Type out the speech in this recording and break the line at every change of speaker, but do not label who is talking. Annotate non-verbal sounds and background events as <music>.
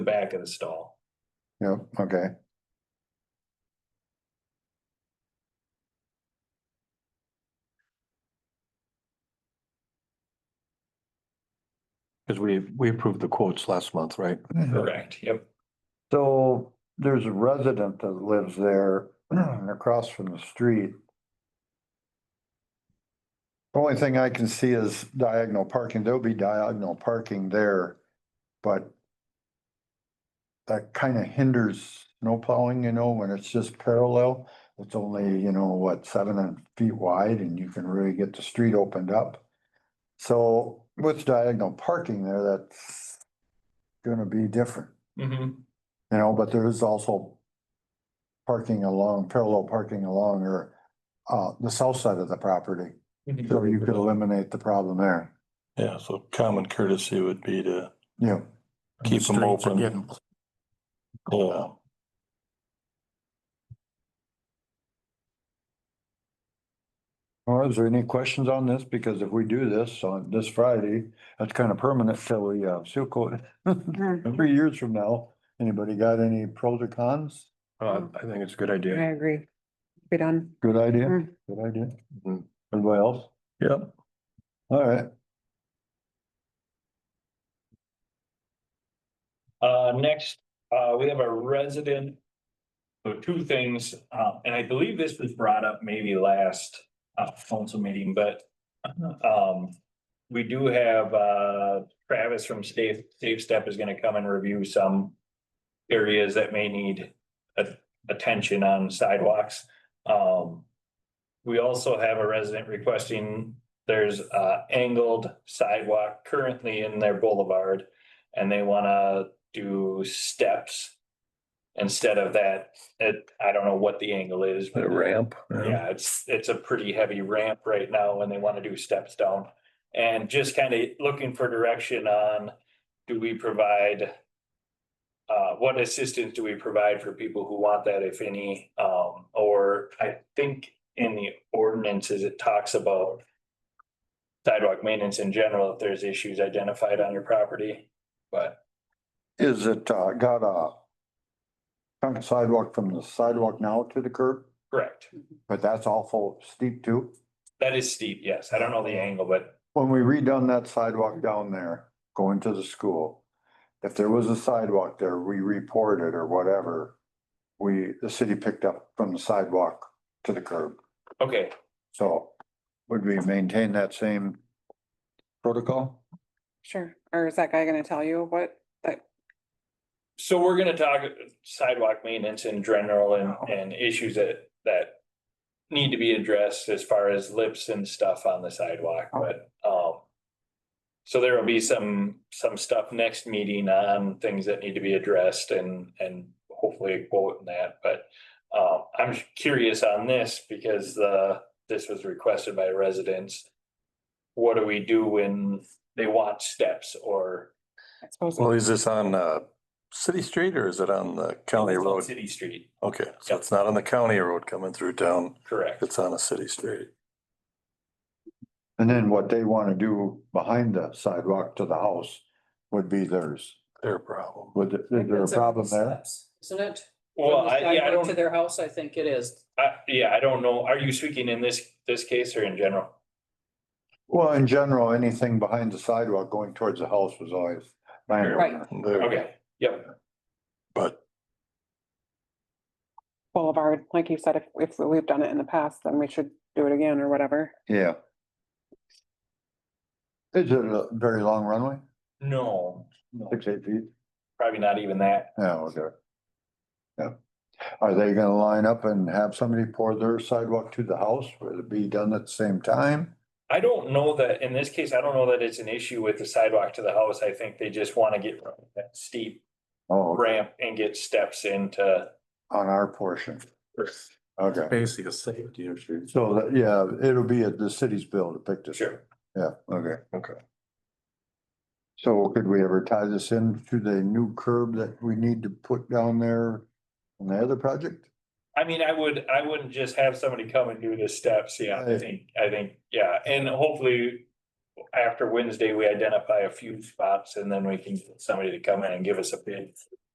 the back of the stall.
Yep, okay.
Because we, we approved the quotes last month, right?
Mm-hmm.
Correct, yep.
So there's a resident that lives there <clears throat> across from the street. The Only thing I can see is diagonal parking. There'll be diagonal parking there, but that kind of hinders snow plowing, you know, when it's just parallel. It's only, you know, what, seven and feet wide and you can really get the street opened up. So with diagonal parking there, that's gonna be different.
Mhm.
You know, but there is also parking along, parallel parking along or uh, the south side of the property.
Mm-hmm.
So you could eliminate the problem there.
Yeah, so common courtesy would be to
Yeah,
keep them open. Yeah.
Again, Oh,
well, is there any questions on this? Because if we do this on this Friday, that's kind of permanent till we uh, seal coat.
Mm-hmm.
it. <laughs> Three years from now, anybody got any pros or cons?
Uh, I think it's a good idea.
I agree. Be done.
Good idea,
Mm.
good idea.
Mhm.
Anybody else?
Yep,
All right,
Uh, next, uh, we have a resident. So two things, uh, and I believe this was brought up maybe last, uh, council meeting, but, um. We do have, uh, Travis from Safe, Safe Step is gonna come and review some. Areas that may need a- attention on sidewalks, um. We also have a resident requesting, there's, uh, angled sidewalk currently in their boulevard. And they wanna do steps. Instead of that, it, I don't know what the angle is. but-
a ramp.
yeah, it's, it's a pretty heavy ramp right now and they want to do steps down. And just kind of looking for direction on, do we provide? Uh, what assistance do we provide for people who want that, if any? Um, or I think in the ordinances, it talks about. Sidewalk maintenance in general, if there's issues identified on your property, but
is it uh, got a chunk of sidewalk from the sidewalk now to the curb,
correct.
but that's awful steep too?
That is steep, yes. I don't know the angle, but
When we redone that sidewalk down there, going to the school, if there was a sidewalk there, we reported or whatever. We, the city picked up from the sidewalk to the curb,
okay,
so would we maintain that same protocol?
Sure. Or is that guy gonna tell you what, that,
So we're gonna talk sidewalk maintenance in general and, and issues that, that. Need to be addressed as far as lips and stuff on the sidewalk, but, um. So there will be some, some stuff next meeting on things that need to be addressed and, and hopefully a quote in that, but. Um, I'm curious on this because, uh, this was requested by residents. What do we do when they want steps or?
I suppose,
Well, is this on, uh, city street or is it on the county road?
City street,
Okay, so it's not on the county road coming through town.
correct.
It's on a city street.
And then what they wanna do behind the sidewalk to the house would be theirs.
Their problem.
Would, is there a problem there?
Isn't it?
Well,
From the
I, yeah, I
sidewalk
don't.
To their house, I think it is.
I yeah, I don't know. Are you speaking in this, this case or in general?
Well, in general, anything behind the sidewalk going towards the house was always.
right,
There-
Okay, yep,
But
Boulevard, like you said, if, if we've done it in the past, then we should do it again or whatever.
Yeah. Is it a very long runway?
no, no,
Six, eight feet?
probably not even that.
Yeah, okay. Yeah. Are they gonna line up and have somebody pour their sidewalk to the house? Will it be done at the same time?
I don't know that, in this case, I don't know that it's an issue with the sidewalk to the house. I think they just wanna get rid of that steep
Oh, okay,
ramp and get steps into.
on our portion. Okay,
Basically a safety issue.
so that, yeah, it'll be at the city's bill to pick this. up.
Sure.
Yeah, okay.
Okay.
So could we ever tie this in to the new curb that we need to put down there on the other project?
I mean, I would, I wouldn't just have somebody come and do the steps, yeah, I
Right.
think, I think, yeah, and hopefully. after Wednesday, we identify a few spots and then we can get somebody to come in and give us a bid.